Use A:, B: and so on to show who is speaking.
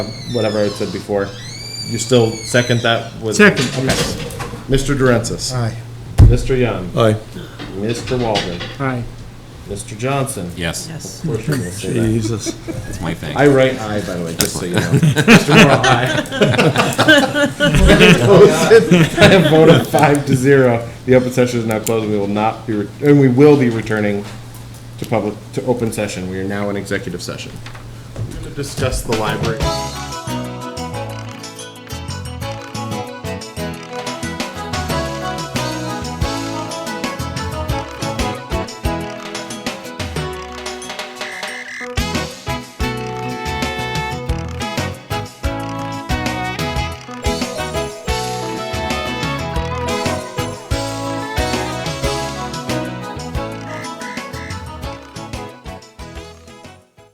A: whatever I said before. You still second that with?
B: Second.
A: Okay. Mr. Durensis.
B: Aye.
A: Mr. Young.
C: Aye.
A: Mr. Walden.
B: Aye.
A: Mr. Johnson.
D: Yes,
A: Of course you're gonna say that.
C: Jesus.
D: that's my thing.
A: I write aye, by the way, just so you know. Mr. Morrow, aye. I have voted five to zero. The open session is now closed. We will not be, re- and we will be returning to public, to open session. We are now in executive session. We're gonna Discuss the library.